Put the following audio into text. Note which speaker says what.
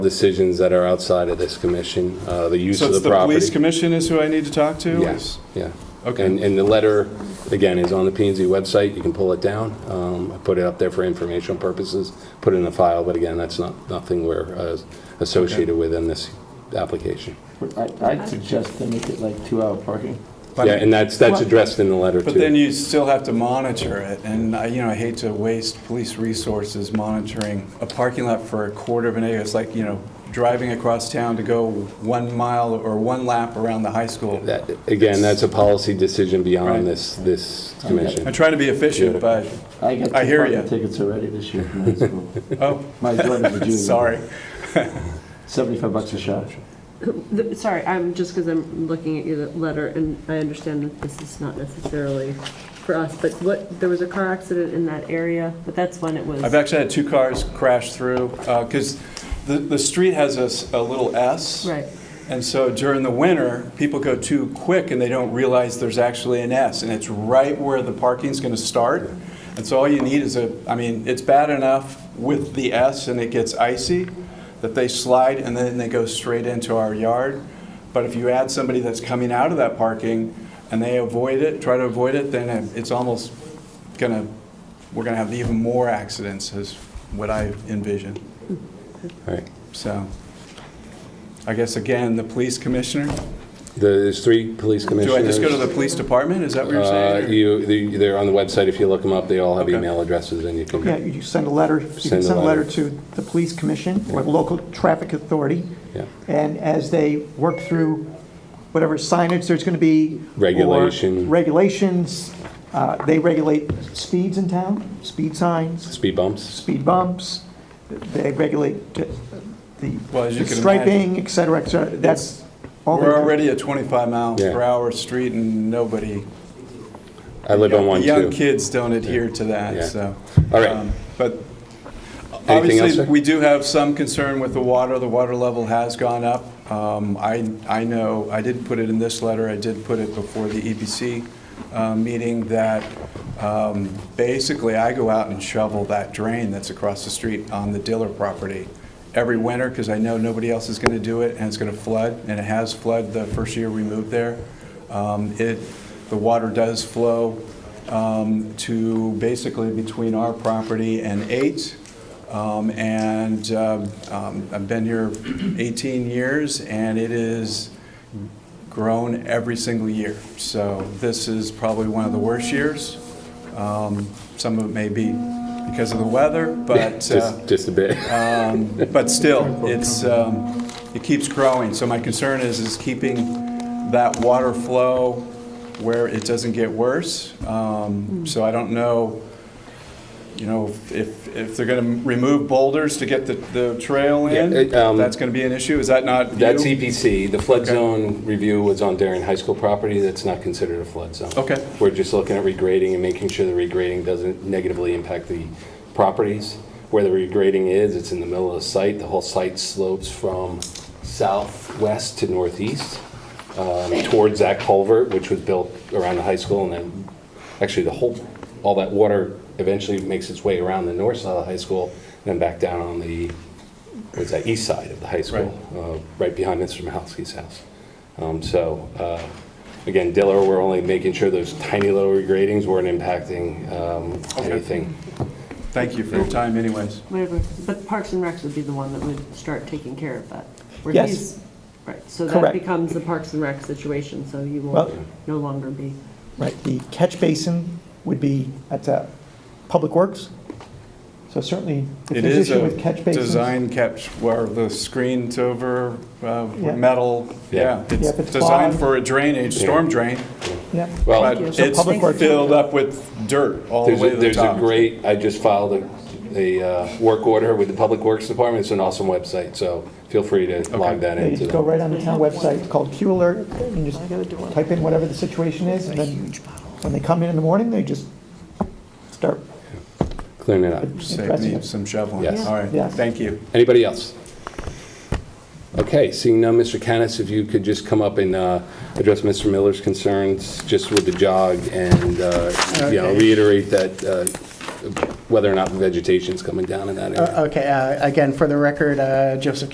Speaker 1: decisions that are outside of this commission, uh, the use
Speaker 2: So
Speaker 1: of
Speaker 2: it's
Speaker 1: the
Speaker 2: the police
Speaker 1: property.
Speaker 2: commission is who I need to talk to?
Speaker 1: Yes, yeah.
Speaker 2: Okay.
Speaker 1: And, and the letter, again, is on the P and Z website, you can pull it down. Um, I put it up there for informational purposes, put it in a file, but again, that's not, nothing we're uh, associated with in this application.
Speaker 3: I- I'd suggest to make it like two-hour parking.
Speaker 2: But-
Speaker 1: Yeah, and that's, that's
Speaker 2: Well-
Speaker 1: addressed in the letter
Speaker 2: But then
Speaker 1: too.
Speaker 2: you still have to monitor it, and I, you know, I hate to waste police resources monitoring a parking lot for a quarter of an acre. It's like, you know, driving across town to go one mile or one lap around the high school.
Speaker 1: That- Again, that's a policy decision
Speaker 2: Right.
Speaker 1: beyond this, this
Speaker 2: I'm
Speaker 1: commission.
Speaker 2: trying to be efficient, but,
Speaker 3: I got two
Speaker 2: I hear ya.
Speaker 3: parking tickets already this year from high school.
Speaker 2: oh,
Speaker 3: My daughter's
Speaker 1: Mm.
Speaker 3: a junior.
Speaker 2: sorry.
Speaker 3: 75 bucks a shot.
Speaker 4: The- Sorry, I'm, just because I'm looking at your letter, and I understand that this is not necessarily for us, but what, there was a car accident in that area, but that's when it was.
Speaker 2: I've actually had two cars crash through, because the, the street has a, s- a little S.
Speaker 4: Right,
Speaker 2: And so during the winter, people go too quick and they don't realize there's actually an S, and it's right where the parking's going to start. And so all you need is a, I mean, it's bad enough with the S and it gets icy that they slide and then they go straight into our yard. But if you add somebody that's coming out of that parking and they avoid it, try to avoid it, then it's almost going to, we're going to have even more accidents is what I envision.
Speaker 1: All right.
Speaker 2: So, I guess again, the police commissioner?
Speaker 1: The- There's three police
Speaker 2: Do I
Speaker 1: commissioners.
Speaker 2: just go to the police department? Is that what you're
Speaker 1: Uh,
Speaker 2: saying?
Speaker 1: You, the- they're on the website, if you look them up, they all have
Speaker 2: Okay.
Speaker 1: email addresses and you
Speaker 5: Yeah,
Speaker 1: can,
Speaker 5: you just send a letter, you can
Speaker 1: Send a
Speaker 5: send a
Speaker 1: letter.
Speaker 5: letter to the police commission or the local traffic authority.
Speaker 1: Yeah.
Speaker 5: And as they work through whatever signage there's going to be. or
Speaker 1: Regulation.
Speaker 5: Regulations, uh, they regulate speeds in town, speed signs,
Speaker 1: speed bumps.
Speaker 5: speed bumps, they regulate the
Speaker 2: Well, as you
Speaker 5: the
Speaker 2: can
Speaker 5: striping, et cetera, et cetera. That's all. they
Speaker 2: We're
Speaker 5: do.
Speaker 2: already at 25 mile
Speaker 1: Yeah.
Speaker 2: per hour street and nobody,
Speaker 1: I live on
Speaker 2: the
Speaker 1: one too.
Speaker 2: young kids don't adhere to that,
Speaker 1: Yeah.
Speaker 2: so.
Speaker 1: All right.
Speaker 2: um, But
Speaker 1: Anything else,
Speaker 2: obviously,
Speaker 1: sir?
Speaker 2: we do have some concern with the water. The water level has gone up. Um, I, I know, I did put it in this letter, I did put it before the EPC uh, meeting, that um, basically I go out and shovel that drain that's across the street on the Diller property every winter, because I know nobody else is going to do it, and it's going to flood, and it has flooded the first year we moved there. Um, It, the water does flow um, to basically between our property and eight. Um, And um, um, I've been here 18 years, and it is grown every single year. So this is probably one of the worst years. Um, Some of it may be because of the weather, but, uh,
Speaker 1: Just, just a bit.
Speaker 2: but still, it's, um, it keeps growing. So my concern is, is keeping that water flow where it doesn't get worse. Um, So I don't know, you know, if, if they're going to remove boulders to get the, the trail in,
Speaker 1: Yeah, it, um,
Speaker 2: that's going to be an issue? Is that not you?
Speaker 1: That's e- EPC. The flood
Speaker 2: Okay.
Speaker 1: zone review was on Darien High School property. That's not considered a flood zone.
Speaker 2: Okay.
Speaker 1: We're just looking at regrading and making sure the regrading doesn't negatively impact the properties. Where the regrading is, it's in the middle of the site. The whole site slopes from southwest to northeast um, towards that culvert, which was built around the high school and then, actually, the whole, all that water eventually makes its way around the north side of the high school and then back down on the, what's that, east side of the high school, uh, right behind Mr. Mahalski's house. Um, So, uh, again, Diller, we're only making sure those tiny little regradings weren't impacting um, anything.
Speaker 2: Thank you for your time anyways.
Speaker 4: whatever, but Parks and Recs would be the one that would start taking care of that. where
Speaker 5: Yes.
Speaker 4: he's- Right, so that
Speaker 5: Correct.
Speaker 4: becomes the Parks and Rec situation, so you will
Speaker 5: Well-
Speaker 4: no longer be,
Speaker 5: Right, the catch basin would be at uh, Public Works, so certainly if
Speaker 2: It
Speaker 5: there's
Speaker 2: is
Speaker 5: issue
Speaker 2: a
Speaker 5: with catch basins.
Speaker 2: design catch, where the screen's over, uh,
Speaker 5: Yeah.
Speaker 2: metal, yeah.
Speaker 5: Yeah,
Speaker 2: It's
Speaker 5: if it's
Speaker 2: designed
Speaker 5: clogged.
Speaker 2: for a drainage, storm drain,
Speaker 5: Yep.
Speaker 1: Well,
Speaker 2: but
Speaker 5: So
Speaker 2: it's
Speaker 5: Public Works-
Speaker 2: filled up with dirt all the
Speaker 1: there's
Speaker 2: way
Speaker 1: a
Speaker 2: to the
Speaker 1: there's a
Speaker 2: top.
Speaker 1: great, I just filed a, a uh, work order with the Public Works Department. It's an awesome website, so feel free to log that
Speaker 5: Yeah, You
Speaker 1: into
Speaker 5: just go
Speaker 1: them.
Speaker 5: right on the town website, it's called Q Alert, and you just type in whatever the situation is, and then when they come in in the morning, they just start,
Speaker 1: Clean it up.
Speaker 2: Save me some shoveling.
Speaker 1: Yes.
Speaker 2: All right,
Speaker 5: Yes.
Speaker 2: thank you.
Speaker 1: Anybody else? Okay, seeing none, Mr. Canis, if you could just come up and uh, address Mr. Miller's concerns just with the jog and, uh, you know,
Speaker 6: Okay.
Speaker 1: reiterate that uh, whether or not vegetation's coming down in that area.
Speaker 6: Uh, Okay, uh, again, for the record, uh, Joseph